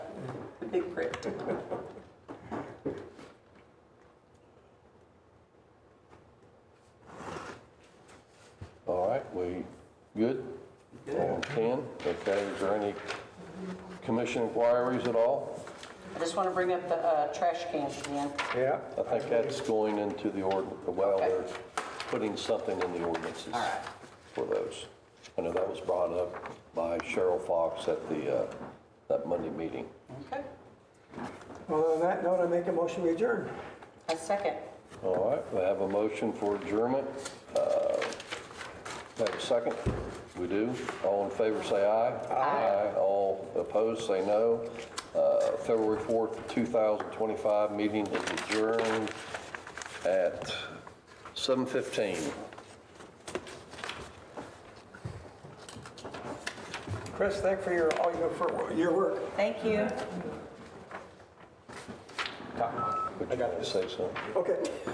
big print. All right, we good? All Ten, okay, is there any commission inquiries at all? I just want to bring up the uh, trash cans again. Yeah. I think that's going into the ordinance, well, Okay. they're putting something in the ordinances All right. for those. I know that was brought up by Cheryl Fox at the, uh, that Monday meeting. Okay. Well, on that note, I make a motion we adjourn. A second. All right, we have a motion for adjournment. Uh, Have a second? We do. All in favor, say aye. Aye. All opposed, say no. Uh, February 4th, 2025, meeting is adjourned at 7:15. Chris, thank for your, all your, for your work. Thank you. Would you like to say something? Okay.